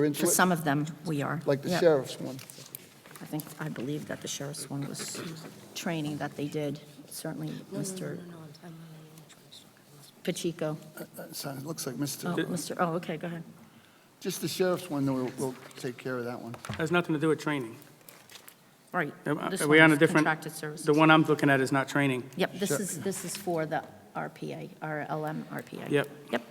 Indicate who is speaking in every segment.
Speaker 1: We're into
Speaker 2: For
Speaker 1: it,
Speaker 2: some of them, we are.
Speaker 1: Like the
Speaker 2: Yeah.
Speaker 1: sheriff's one.
Speaker 2: I think, I believe that the sheriff's one was training that they did, certainly Mr. Pacheco.
Speaker 1: That- that sounds- It looks like
Speaker 2: Oh,
Speaker 1: Mr.,
Speaker 2: Mr., oh, okay, go ahead.
Speaker 1: just the sheriff's one, then we'll, we'll take care of that one.
Speaker 3: Has nothing to do with training.
Speaker 2: Right.
Speaker 3: Am I-
Speaker 2: This
Speaker 3: Are we
Speaker 2: one
Speaker 3: on a
Speaker 2: is
Speaker 3: different?
Speaker 2: Contracted services.
Speaker 3: The one I'm looking at is not training.
Speaker 2: Yep, this
Speaker 1: Sure.
Speaker 2: is, this is for the RPA, our LM RPA.
Speaker 3: Yep.
Speaker 2: Yep,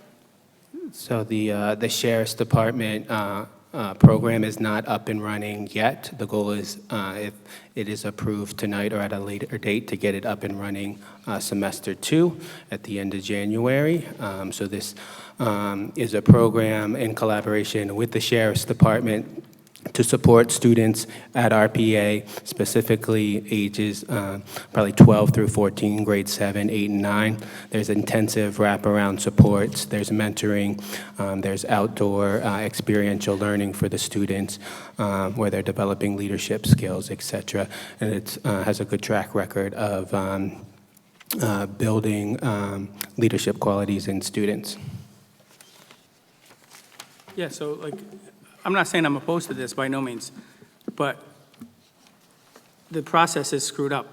Speaker 4: So the, uh, the Sheriff's Department uh, uh, program is not up and running yet. The goal is, uh, if it is approved tonight or at a later date, to get it up and running uh, semester two at the end of January. Um, So this um, is a program in collaboration with the Sheriff's Department to support students at RPA, specifically ages uh, probably 12 through 14, grade 7, 8, and 9. There's intensive wraparound supports, there's mentoring, um, there's outdoor uh, experiential learning for the students um, where they're developing leadership skills, et cetera. And it has a good track record of um, uh, building um, leadership qualities in students.
Speaker 3: Yeah, so like, I'm not saying I'm opposed to this by no means, but the process is screwed up.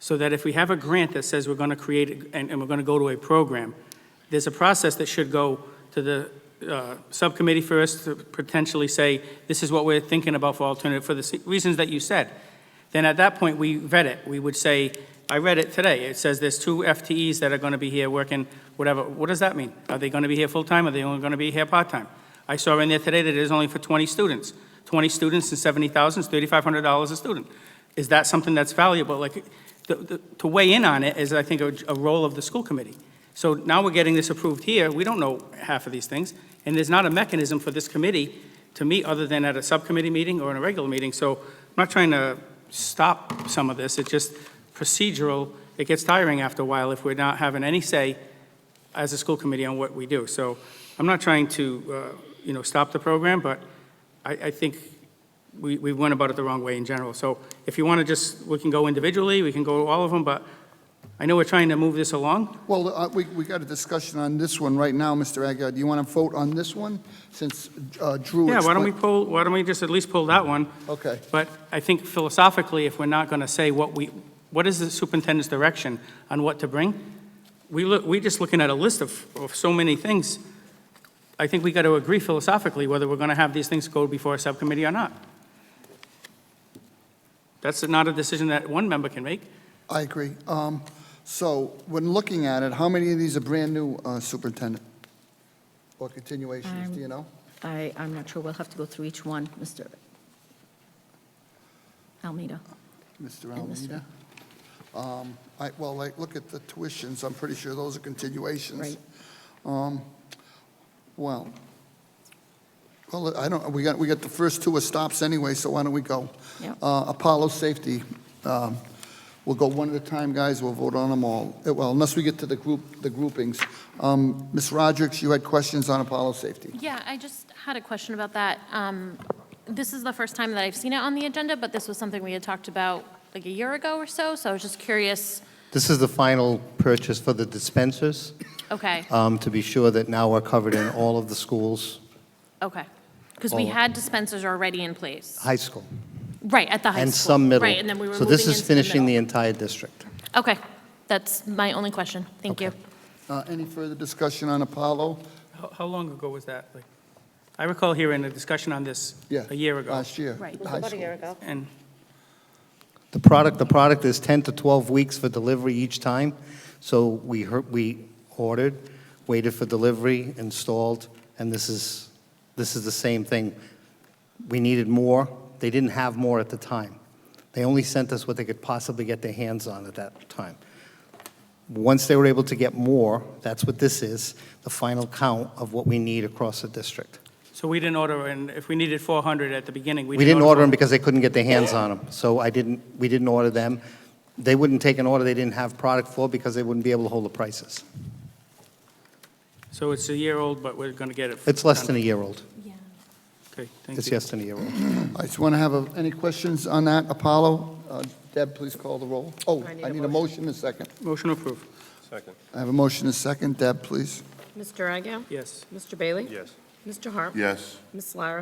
Speaker 3: So that if we have a grant that says we're going to create, it and, and we're going to go to a program, there's a process that should go to the uh, subcommittee first to potentially say, this is what we're thinking about for alternative, for the se- reasons that you said. Then at that point, we vet it. We would say, I read it today. It says there's two FTEs that are going to be here working, whatever. What does that mean? Are they going to be here full-time? Are they only going to be here part-time? I saw in there today that it is only for 20 students. 20 students and 70,000 is $3,500 a student. Is that something that's valuable? Like, the- the- to weigh in on it is, I think, a a role of the school committee. So now we're getting this approved here. We don't know half of these things, and there's not a mechanism for this committee to meet other than at a subcommittee meeting or in a regular meeting. So I'm not trying to stop some of this. It's just procedural. It gets tiring after a while if we're not having any say as a school committee on what we do. So I'm not trying to, uh, you know, stop the program, but I, I think we, we went about it the wrong way in general. So if you want to just, we can go individually, we can go to all of them, but I know we're trying to move this along.
Speaker 1: Well, uh, we, we got a discussion on this one right now, Mr. Aguirre. Do you want to vote on this one, since uh, Drew?
Speaker 3: Yeah, why don't we
Speaker 1: explained-
Speaker 3: pull, why don't we just at least pull that one?
Speaker 1: Okay,
Speaker 3: But I think philosophically, if we're not going to say what we, what is the superintendent's direction on what to bring? We look, we're just looking at a list of, of so many things. I think we got to agree philosophically whether we're going to have these things go before a subcommittee or not. That's not a decision that one member can make.
Speaker 1: I agree. Um, So, when looking at it, how many of these are brand-new, uh, Superintendent? Or continuations,
Speaker 2: Um,
Speaker 1: do you know?
Speaker 2: I, I'm not sure, we'll have to go through each one, Mr. Almeida.
Speaker 1: Mr.
Speaker 2: And Mr.
Speaker 1: Almeida? Um, I, well, like, look at the tuitions, I'm pretty sure those are continuations.
Speaker 2: Right.
Speaker 1: Um, Well, well, I don't, we got, we got the first two are stops anyway, so why don't we go?
Speaker 2: Yep.
Speaker 1: Uh, Apollo Safety, um, we'll go one at a time, guys, we'll vote on them all, Uh, well, unless we get to the group, the groupings. Um, Ms. Rodrick, you had questions on Apollo Safety?
Speaker 5: Yeah, I just had a question about that. Um, This is the first time that I've seen it on the agenda, but this was something we had talked about like a year ago or so, so I was just curious,
Speaker 6: This is the final purchase for the dispensers,
Speaker 5: okay,
Speaker 6: um, to be sure that now we're covered in all of the schools,
Speaker 5: okay. Because we
Speaker 6: All-
Speaker 5: had dispensers already in place,
Speaker 6: high school,
Speaker 5: right, at the high school.
Speaker 6: and some middle.
Speaker 5: Right, and then we were
Speaker 6: So
Speaker 5: moving
Speaker 6: this is
Speaker 5: into the
Speaker 6: finishing the
Speaker 5: middle.
Speaker 6: entire district.
Speaker 5: Okay, that's my only question, thank you.
Speaker 1: Uh, Any further discussion on Apollo?
Speaker 3: How, how long ago was that? Like, I recall hearing a discussion on this
Speaker 1: Yeah.
Speaker 3: a year ago.
Speaker 1: Last year.
Speaker 5: Right.
Speaker 1: high school.
Speaker 6: Uh,
Speaker 5: ago.
Speaker 3: And
Speaker 6: The product, the product is 10 to 12 weeks for delivery each time, so we heard, we ordered, waited for delivery, installed, and this is, this is the same thing. We needed more, they didn't have more at the time. They only sent us what they could possibly get their hands on at that time. Once they were able to get more, that's what this is, the final count of what we need across the district.
Speaker 3: so we didn't order, and if we needed 400 at the beginning, we
Speaker 6: We
Speaker 3: didn't order.
Speaker 6: didn't order them because they couldn't get their hands on them, so I didn't, we didn't order them. They wouldn't take an order they didn't have product for because they wouldn't be able to hold the prices.
Speaker 3: So it's a year old, but we're going to get it.
Speaker 6: It's less than a year old.
Speaker 5: Yeah.
Speaker 3: Okay, thank you.
Speaker 6: It's less than a year old.
Speaker 1: I just want to have, a- any questions on that, Apollo? Uh, Deb, please call the roll. Oh, I need a motion and a second.
Speaker 3: Motion approved,
Speaker 1: I have a motion and a second, Deb, please.
Speaker 7: Mr. Agia?
Speaker 3: yes.
Speaker 7: Mr. Bailey?
Speaker 8: Yes.
Speaker 7: Mr. Harp?
Speaker 8: Yes.
Speaker 7: Ms. Lara